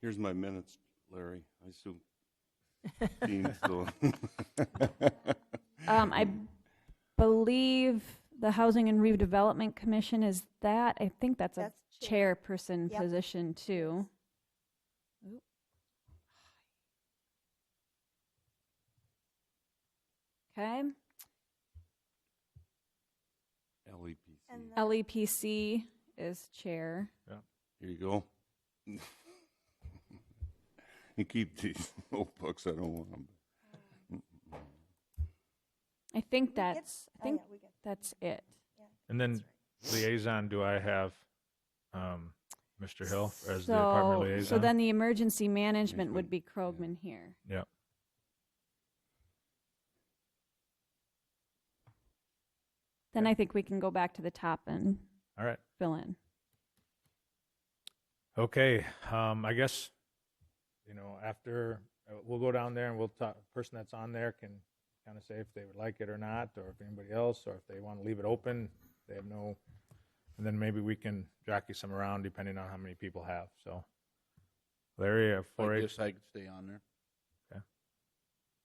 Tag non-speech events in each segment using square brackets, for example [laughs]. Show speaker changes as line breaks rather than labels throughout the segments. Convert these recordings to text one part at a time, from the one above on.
Here's my minutes, Larry. I
[laughs]
assume Dean's still.
Um, I believe the Housing and Redevelopment Commission is that. I think that's a
That's chair.
chairperson
Yep.
position too. Oop. Okay,
LEPC.
And the-
LEPC E is chair.
Here you go. [laughs] You keep these notebooks. I don't want them.
I think
get-
that's, I
oh, yeah,
think
we get-
that's it.
And then liaison, do I have um, Mr. Hill as the
So-
department liaison?
So then the emergency management would
Management,
be Krogman here.
Yep.
Then I think we can go back to the top and
All right.
fill in.
Okay. Um, I guess, you know, after uh, we'll go down there and we'll talk, person that's on there can kind of say if they would like it or not, or if anybody else, or if they want to leave it open, they have no, and then maybe we can jockey some around depending on how many people have. So Larry, uh,
I
4-H,
guess I could stay on there.
Okay.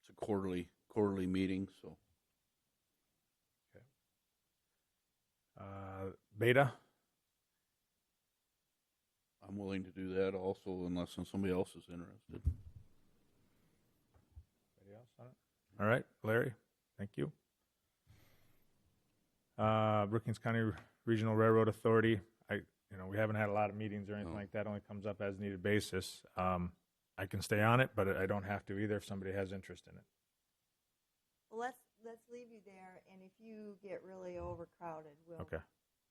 It's a quarterly, quarterly meeting, so.
uh, Beta?
I'm willing to do that also unless somebody else is interested.
Anybody else on it? All right, Larry, thank you. Uh, Brookings County Regional Railroad Authority, I, you know, we haven't had a lot of meetings or anything
No.
like that, only comes up as needed basis. Um, I can stay on it, but I don't have to either if somebody has interest in it.
Well, let's, let's leave you there, and if you get really overcrowded, we'll.
Okay.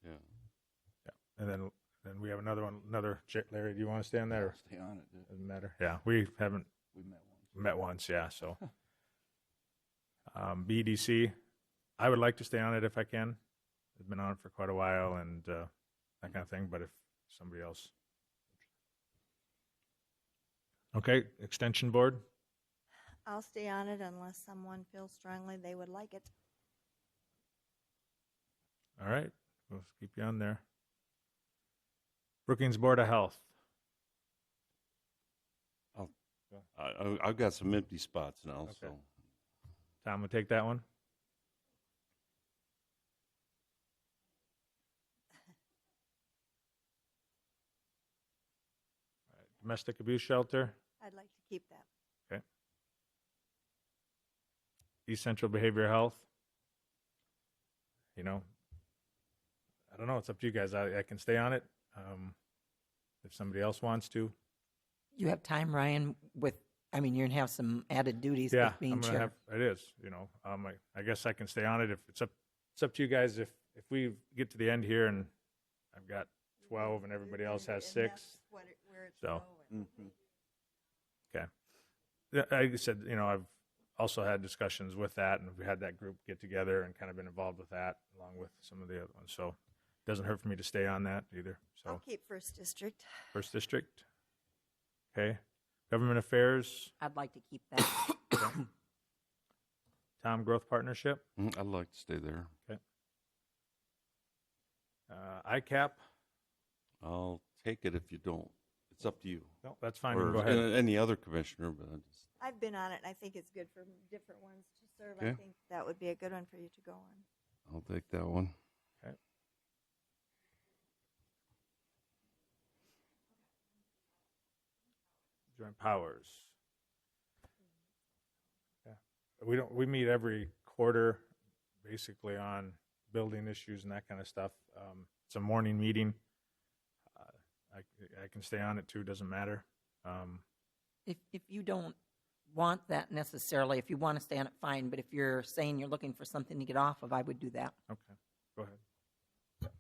Yeah.
And then, then we have another one, another, Jer- Larry, do you want to stay on that or
Stay on it. yeah.
doesn't matter? Yeah, we haven't
We met once.
met once, yeah, so. Um, BDC, I would like to stay on it if I can. I've been on it for quite a while and uh, that kind of thing, but if somebody else. Okay, Extension Board,
I'll stay on it unless someone feels strongly they would like it.
all right, we'll keep you on there. Brookings Board of Health,
I, I- I've got some empty spots now,
Okay.
so.
Tom would take that one. All right, Domestic Abuse Shelter,
I'd like to keep that.
East Central Behavioral Health. You know, I don't know. It's up to you guys. I, I can stay on it um, if somebody else wants to.
You have time, Ryan, with, I mean, you're going to have some added duties
yeah,
with being
I'm gonna
chair.
have. It is. You know, um, I, I guess I can stay on it if it's up. It's up to you guys. If if we get to the end here and I've got twelve and everybody else has
And that's
six,
what it- where it's
so. mm.
going.
Mhm.
Yeah, like I said, you know, I've also had discussions with that, and we had that group get together and kind of been involved with that, along with some of the other ones. So it doesn't hurt for me to stay on that either. So
I'll keep first district.
first district, okay, government affairs,
I'd like to keep that.
[coughs] Tom Growth Partnership,
Mm, I'd like to stay there.
uh, ICAP.
I'll take it if you don't. It's up to you.
No, that's fine. you
Or
can go ahead.
a- Any other commissioner, but I just,
I've been on it, and I think it's good for different ones to serve. I
Okay.
think that would be a good one for you to go on.
I'll take that one.
Joint powers. Yeah. We don't, we meet every quarter, basically on building issues and that kind of stuff. Um, it's a morning meeting. Uh, I, I can stay on it too, doesn't matter. Um,
[coughs] If, if you don't want that necessarily, if you want to stay on it, fine, but if you're saying you're looking for something to get off of, I would do that.
okay, go ahead.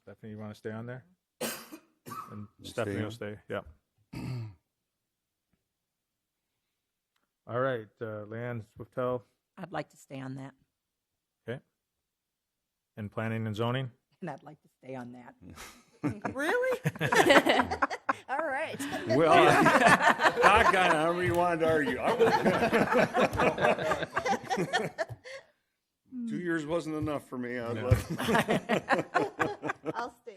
Stephanie, you want to stay
[coughs]
on there? And
Stay
Stephanie will
on.
stay, yeah. All right, uh, Leanne Swiftel
I'd like to stay on that,
in planning and zoning.
and I'd like to stay on that. [laughs]
Really?
[laughs]
All right.
Well, I kind of, however you wanted to argue. I
[laughs]
was- Two years wasn't enough for me. I was like-
[laughs] I'll stay.